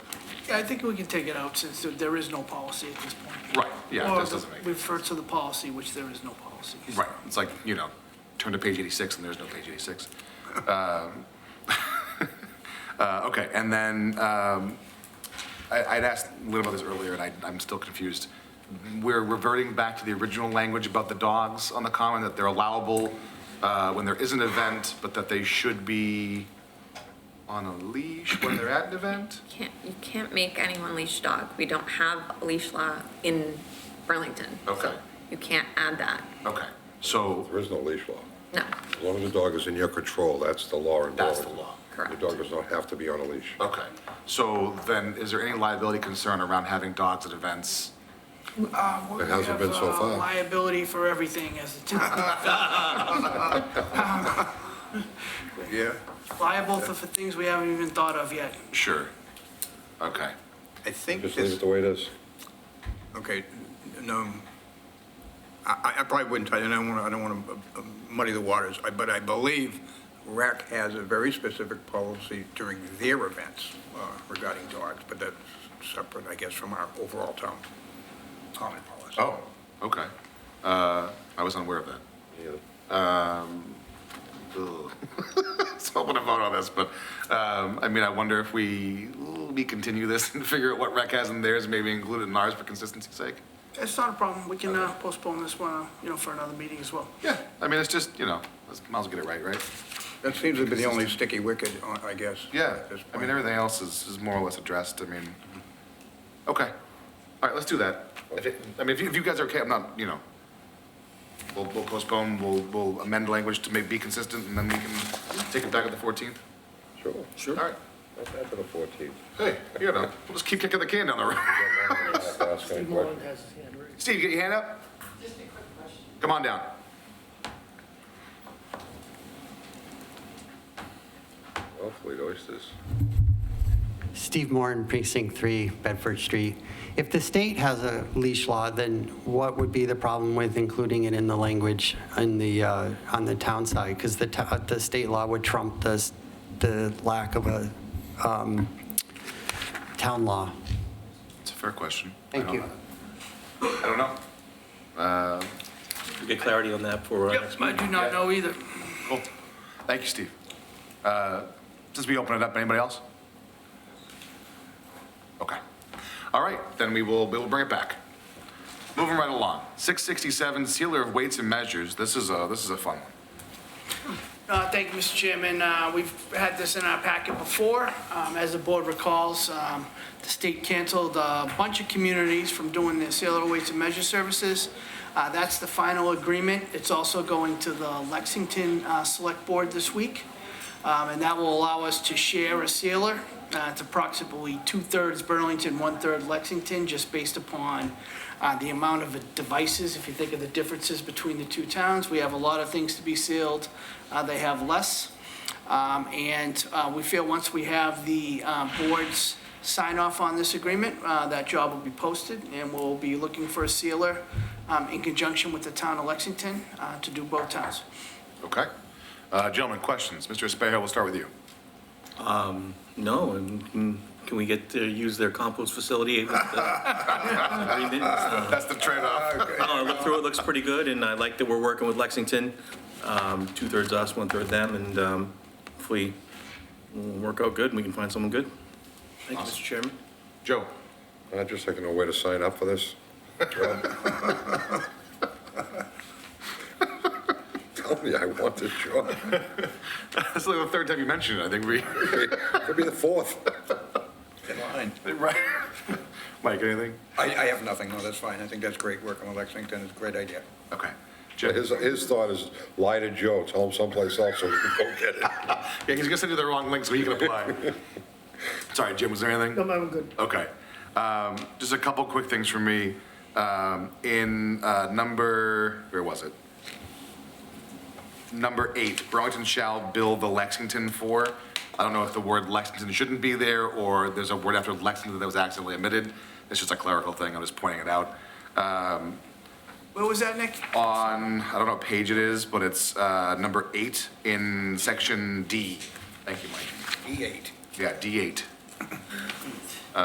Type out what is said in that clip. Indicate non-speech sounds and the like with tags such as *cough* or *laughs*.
I think we can take it out since there- there is no policy at this point. Right, yeah, Or this doesn't make, Refer to the policy, which there is no policy. right, it's like, you know, turn to page 86 and there's no page 86. Um, *laughs* uh, Okay, and then, um, I- I'd asked Lynn about this earlier, and I- I'm still confused. We're reverting back to the original language about the dogs on the common, that they're allowable uh, when there is an event, but that they should be on a leash when they're at an event? Can't, you can't make anyone leash dog. We don't have a leash law in Burlington. so Okay. You can't add that, Okay, so There is no leash law. no, As long as the dog is in your control, that's the law in that's the Burlington. law. Oh. Your correct. dog does not have to be on a leash. Okay, so then, is there any liability concern around having dogs at events? Uh, we It hasn't have, been so uh, far. Liability for everything as a *laughs* town, Yeah. liable for for things we haven't even thought of yet. Sure. Okay, I think Just leave it this, the way it is. okay, no, I, I- I probably wouldn't, I don't want to, I don't want to muddy the waters, I- but I believe RAC has a very specific policy during their events uh, regarding dogs, but that's separate, I guess, from our overall town common policy. oh, okay. Uh, I was unaware of that. Ugh. *laughs* So I'm gonna vote on this, but, um, I mean, I wonder if we, we continue this and *laughs* figure out what rec has in theirs, maybe include it in ours for consistency's sake? It's not a problem, we can uh, postpone this one, uh, you know, for another meeting as well. Yeah, I mean, it's just, you know, let's, might as well get it right, right? That seems to be the only sticky wicket, uh, I guess. Yeah, at this I mean, point. everything else is, is more or less addressed, I mean, okay, all right, let's do that. If it- I mean, if you, if you guys are okay, I'm not, you know, we'll, we'll postpone, we'll, we'll amend language to make, be consistent, and then we can take it back at the fourteenth. Sure. All right, That's after the 14th. hey, you know, we'll just keep kicking the can down the road. *laughs* Have to ask any questions. has his hand raised. Steve, get your hand up, Just a quick question. come on down. Well, Fleet Oysters. Steve Moran, Precinct 3, Bedford Street. If the state has a leash law, then what would be the problem with including it in the language in the, uh, on the town side? Because the, to- the state law would trump the, s- the lack of a um, town law. It's a fair question. I Thank don't you. know. I don't know. We'll Get clarity on that for, uh, Yep, I do not know either. Cool. Thank you, Steve. Uh, Since we open it up, anybody else? Okay. All right, then we will, we will bring it back. Moving right along. 667, sealer of weights and measures. This is a, this is a fun one. Uh, Thank you, Mr. Chairman. Uh, We've had this in our packet before. Um, As the board recalls, um, the state canceled a bunch of communities from doing their sailor weights and measure services. Uh, That's the final agreement. It's also going to the Lexington uh, Select Board this week, Um, and that will allow us to share a sealer. Uh, It's approximately two-thirds Burlington, one-third Lexington, just based upon uh, the amount of devices, if you think of the differences between the two towns, we have a lot of things to be sealed, uh, they have less. Um, And uh, we feel once we have the uh, board's sign off on this agreement, uh, that job will be posted, and we'll be looking for a sealer um, in conjunction with the town of Lexington uh, to do both towns. Okay? Uh, Gentlemen, questions? Mr. Espejo, we'll start with you. no, and can can we get to use their compost facility? with the agreement? Uh, That's the trade-off. I looked through, it looks pretty good, and I like that we're working with Lexington, um, two-thirds us, one-third them, and um, hopefully we'll work out good, and we can find someone good. Thank you, Mr. Chairman. Joe? *laughs* I'd just like to know where to sign up for this. Tell me I want this job. That's like the third time you mentioned it, I think we, *laughs* Could be the fourth. Fine. right? Mike, anything? I, I have nothing, no, that's fine, I think that's great work on Lexington, it's a great idea. Okay. Jim? His, his thought is lie to Joe, tell him someplace else so we can go get it. Yeah, he's gonna send you the wrong link so he can apply. Sorry, Jim, was there anything? No, I'm good. Okay. Um, just a couple quick things from me. Um, in, uh, number, where was it? Number eight, Burlington shall build the Lexington for. I don't know if the word Lexington shouldn't be there, or there's a word after Lexington that was accidentally omitted. It's just a clerical thing, I'm just pointing it out. Where was that, Nick? On, I don't know what page it is, but it's, uh, number eight in E section D. Thank you, Mike. E8. Yeah, D eight.